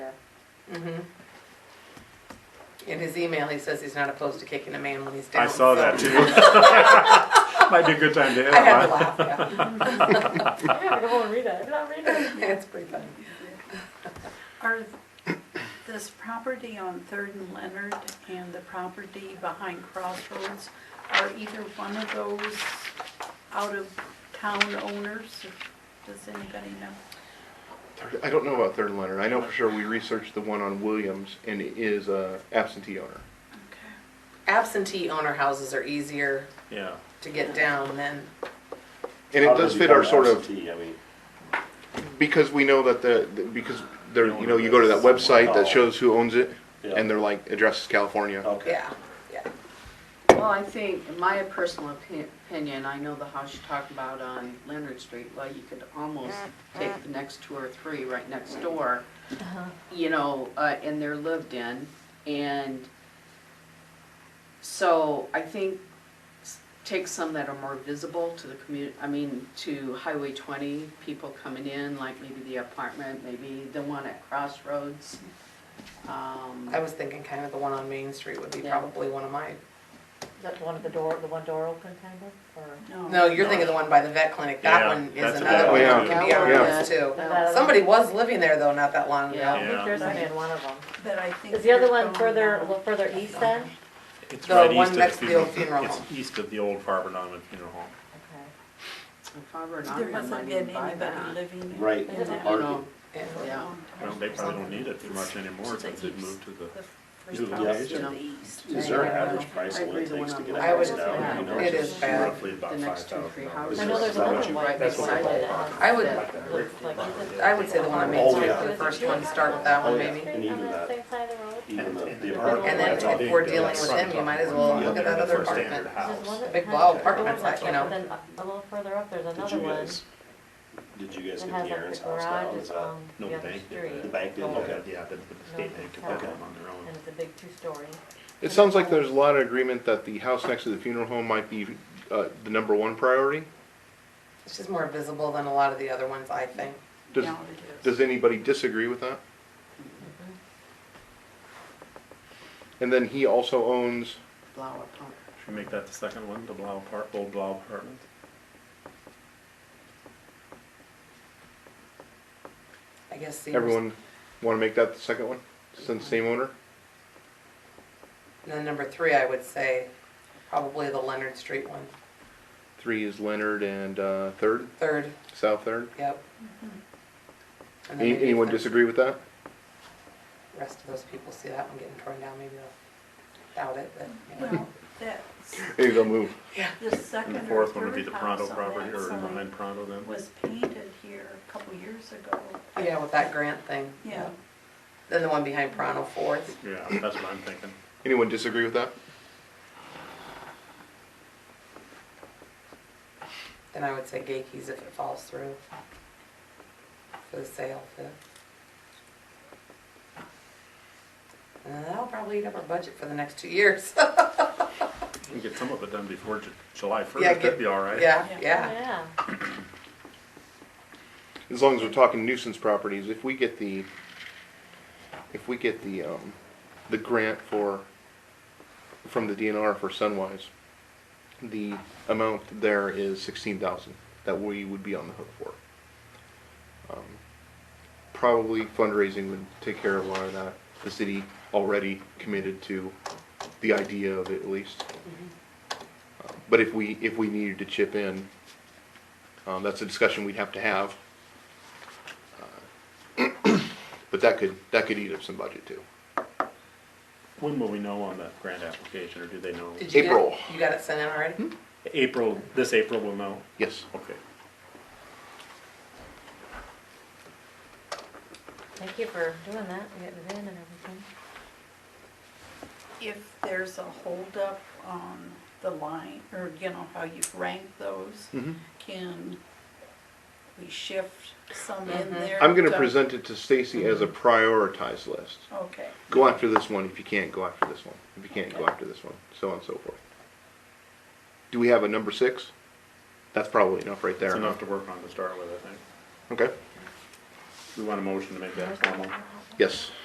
Mhm. In his email, he says he's not opposed to kicking a man when he's down. I so- saw that too. Might be a good time to hit I had to him, huh? laugh, yeah. I gotta go home and read that. I did not read that. It's pretty funny. Are this property on Third and Leonard and the property behind Crossroads, are either one of those out of town owners? Does anybody know? I don't know about Third and Leonard. I know for sure we researched the one on Williams and it is a absentee owner. Okay. Absentee owner houses are easier Yeah. to get down than, And How it does fit our become sort of, absentee? I mean, because we know that the, the- because there, you know, you go to that website that shows who owns it and yeah, they're like, address is California. okay. yeah, yeah. Well, I think, in my personal opi- opinion, I know the house you talked about on Leonard Street, well, you could almost take the next two or three right next door, Uh-huh. you know, uh, and they're lived in, and so I think s- take some that are more visible to the community, I mean, to Highway twenty, people coming in, like maybe the apartment, maybe the one at Crossroads. Um, I was thinking kind of the one on Main Street would be Yeah. probably one of mine. That one of the door, the one door open kind of, or? No, you're thinking the one by the vet clinic, Yeah, that one that's is another a bad one one, that can be too. on Yeah. this too. Yeah. Somebody was living there though, not that long Yeah. I ago. think Yeah. there's only in one of them. But I think. Is the other you're one going further, a along. little further east then? It's The right one east of next to the old funeral It's home. east of the old Farber Norman Funeral Home. Okay. If I were an There owner, I hasn't might been even buy anybody that. living. Right. in that You know, Yeah. yeah. Well, they probably don't need it for much anymore It's the since they've east. moved to the, The New first house house to to the the east. Is there an Yeah. average price I of what agree it the takes to one get on a I would- house down? You know, it it's is just bad. Roughly about The five next two, three thousand dollars. houses. I know there's another one right That's what beside I it. thought. I would- Like, is it- I would say the one on Main Oh, Street yeah. for the first one, start with that Oh, one yeah. maybe. And even that. Same side of the road? Even the, the And apartment. then that's if big, we're though. dealing with him, you might as well look at that other apartment. There's one that Big has- wall the apartment's one that's like, you know. open, Then a little further up, there's Did another you one guys, did you that guys has get the like Aaron's the house down? garage Is that, on no the other bank did street. the bank didn't? Oh. Okay, yeah, the, the state bank took that one on their own. And it's a big two-story. It sounds like there's a lot of agreement that the house next to the funeral home might be, uh, the number one priority. It's just more visible than a lot of the other ones, I think. Does, Yeah, it is. does anybody disagree with that? And then he also owns, Flower pot. Should we make that the second one, the Blau part, old Blau apartment? I guess Sears. everyone wanna make that the second one, since same owner? And then number three, I would say probably the Leonard Street one. Three is Leonard and, uh, third, Third, South Third. yep. And then Any- maybe Anyone if the disagree with that? Rest of those people see that one getting torn down, maybe they'll doubt it, but, you know. Well, that's, Maybe they'll move. the And second the or fourth one would be third the Pronto house property, on or that behind Pronto then? side was painted here a couple years ago. Yeah, with that grant thing. Yeah. Then the one behind Prano Fourth. Yeah, that's what I'm thinking. Anyone disagree with that? Then I would say Gakey's if it falls through. For the sale, for. And Uh, that'll probably eat up our budget for the next two years. We can get some of it done before Ju- July first, Yeah, that'd get- be all right. Yeah, Yeah. yeah. Yeah. As long as we're talking nuisance properties, if we get the, if we get the, um, the grant for, from the DNR for Sunwise, the amount there is sixteen thousand that we would be on the hook for. Um, Probably fundraising would take care of a lot of that. The city already committed to the idea of it at least. Um, But if we, if we needed to chip in, um, that's a discussion we'd have to have. But that could, that could eat up some budget too. When will we know on that grant application, or do they know? Did you get it? April. You got it sent in already? April, this April we'll know, Yes. okay. Thank you for doing that, and getting it in and everything. If there's a holdup on the line, or you know, how you rank those, Mhm. can we shift some in there? I'm gonna present it to Stacy as a prioritized list. Okay, Go after this one if you can't, go after this one. If you can't, go after this one, so on and so forth. Do we have a number six? That's probably enough right It's there. enough to work on to start with, I think. Okay, We want a motion to make that formal. yes.